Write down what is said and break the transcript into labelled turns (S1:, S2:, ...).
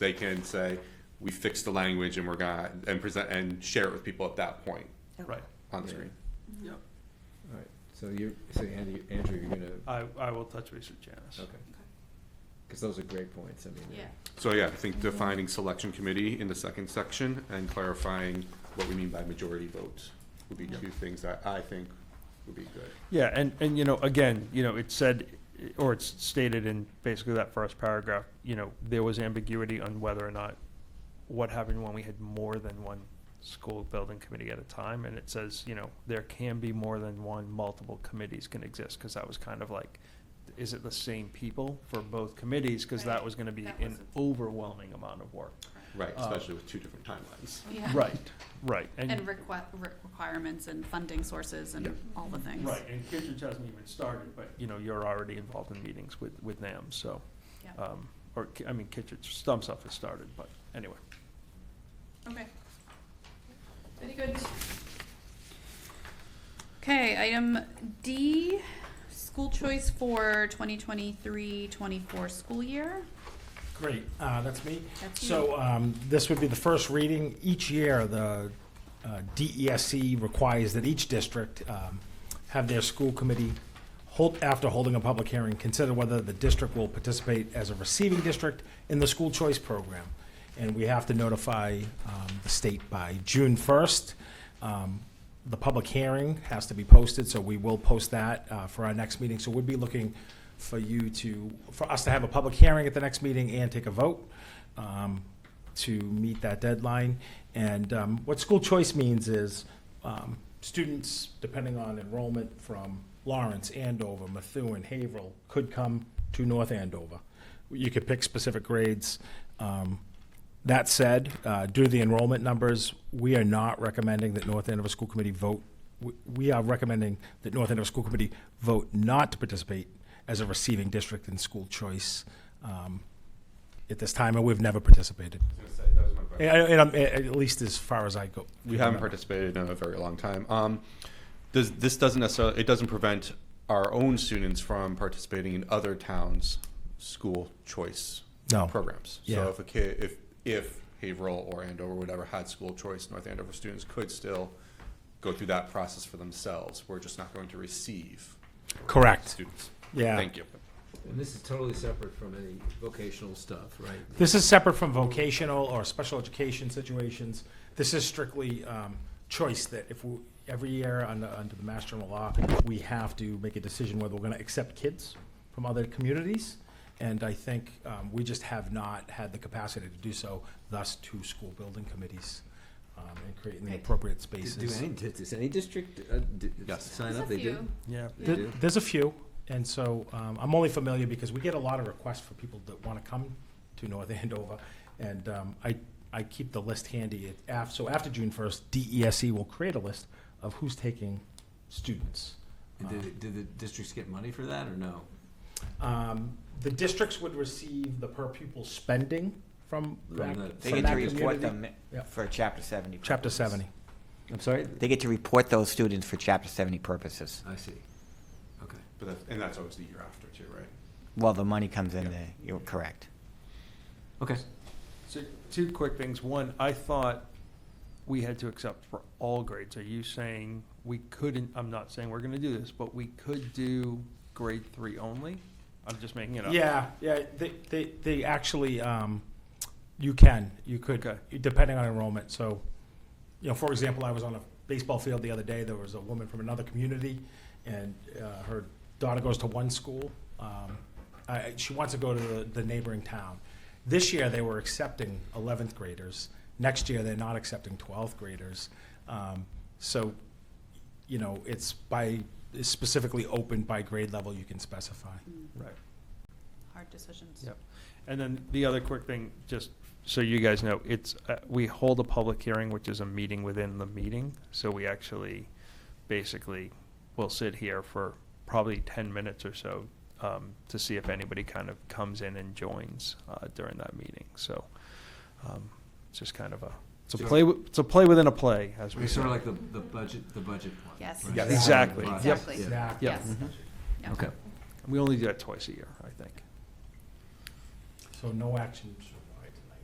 S1: they can say, we fixed the language and we're gonna, and present, and share it with people at that point
S2: Oh.
S3: Right.
S1: on the
S4: Yeah.
S1: screen.
S3: Yep.
S4: All right, so you're, so Andy, Andrew, you're gonna,
S3: I, I will touch base with Janice.
S4: okay. Because those are great points, I mean. they're-
S2: Oh, Yeah.
S1: So yeah, I think defining selection committee in the second section and clarifying what we mean by majority vote would be two things that I think would be good.
S5: Yeah, and, and, you know, again, you know, it said, or it's stated in basically that first paragraph, you know, there was ambiguity on whether or not, what happened when we had more than one school building committee at a time, and it says, you know, there can be more than one, multiple committees can exist, because that was kind of like, is it the same people for both committees, because that
S2: Right,
S5: was gonna be
S2: that
S5: an
S2: wasn't-
S5: overwhelming amount of work.
S1: Right,
S5: Uh,
S1: especially with two different timelines.
S2: Yeah.
S5: Right, right, and.
S2: And requi- re- requirements and funding sources and all the things.
S5: Right, and Kittredge hasn't even started, but, you know, you're already involved in meetings with, with NAM, so.
S2: Yeah.
S5: um, Or, Ki- I mean, Kittredge, Stump Stuff has started, but anyway.
S2: Okay. Very good. Okay, item D, school choice for 2023-24 school year.
S6: Great, uh, that's me.
S2: That's
S6: So um, this would be the first reading. Each year, the uh, DESC requires that each district um, have their school committee, hold- after holding a public hearing, consider whether the district will participate as a receiving district in the school choice program. And we have to notify um, the state by June 1st. Um, The public hearing has to be posted, so we will post that uh, for our next meeting. So we'd be looking for you to, for us to have a public hearing at the next meeting and take a vote um, to meet that deadline. And um, what school choice means is um, students, depending on enrollment from Lawrence, Andover, Methuen, Haverhill, could come to North Andover. You could pick specific grades. Um, That said, uh, due to the enrollment numbers, we are not recommending that North Andover School Committee vote, we- we are recommending that North Andover School Committee vote not to participate as a receiving district in school choice um, at this time, and we've never participated. And, and I'm- at least as far as I go.
S1: We haven't participated in a very long time. Um, does, this doesn't necessarily, it doesn't prevent our own students from participating in other towns' school choice
S6: No.
S1: programs.
S6: Yeah.
S1: So if a kid, if, if Haverhill or Andover, whatever, had school choice, North Andover students could still go through that process for themselves. We're just not going to receive
S6: Correct.
S1: students.
S6: Yeah.
S1: Thank you.
S4: And this is totally separate from any vocational stuff, right?
S6: This is separate from vocational or special education situations. This is strictly um, choice that if we, every year under, under the Mass General Law, we have to make a decision whether we're going to accept kids from other communities. And I think um, we just have not had the capacity to do so, thus two school building committees um, and creating the
S2: Right.
S6: appropriate
S4: Does,
S6: spaces.
S4: do any, does does any district uh, d-
S1: Yes.
S4: sign
S2: There's
S4: up?
S2: a
S4: They do?
S2: few.
S5: Yeah.
S4: They
S6: There-
S4: do?
S6: There's a few, and so um, I'm only familiar because we get a lot of requests for people that want to come to North Andover, and um, I, I keep the list handy. It- af- So after June 1st, DESE E will create a list of who's taking students.
S4: And did, it- did the districts get money for that or no?
S6: Um, The districts would receive the per pupil spending from that,
S4: From the-
S6: from
S7: They get to
S6: that
S7: report
S6: community.
S7: them
S6: Yeah.
S7: for chapter seventy.
S6: Chapter
S7: purposes.
S6: 70.
S4: I'm sorry?
S7: They get to report those students for chapter seventy purposes.
S4: I see. Okay.
S1: But that, and that's always the year after too, right?
S7: Well, the money comes in
S1: Yeah.
S7: there, you're correct.
S4: Okay.
S5: So, two quick things. One, I thought we had to accept for all grades. Are you saying we couldn't, I'm not saying we're gonna do this, but we could do grade three only? I'm just making it up.
S6: Yeah, yeah, they, they, they actually, um, you can, you could,
S5: Okay.
S6: depending on enrollment, so, you know, for example, I was on a baseball field the other day, there was a woman from another community, and, uh, her daughter goes to one school, um, I, she wants to go to the, the neighboring town. This year, they were accepting eleventh graders, next year, they're not accepting twelfth graders, um, so, you know, it's by, it's specifically open by grade level you can specify.
S5: Right.
S2: Hard decisions.
S5: Yep. And then the other quick thing, just so you guys know, it's, uh, we hold a public hearing, which is a meeting within the meeting. So we actually, basically, will sit here for probably 10 minutes or so um, to see if anybody kind of comes in and joins uh, during that meeting. So um, it's just kind of a, it's a
S4: So-
S5: play, wi- it's a play within a play, as we
S4: It's sort
S5: say.
S4: of like the, the budget, the budget one.
S2: Yes.
S4: right?
S1: Yes.
S5: Exactly.
S4: Right.
S5: Yep. Mm-hmm.
S2: Exactly.
S4: Yeah.
S6: Exactly.
S5: Yeah.
S2: Yes.
S4: Okay.
S5: We only do that twice a year, I think.
S6: So no action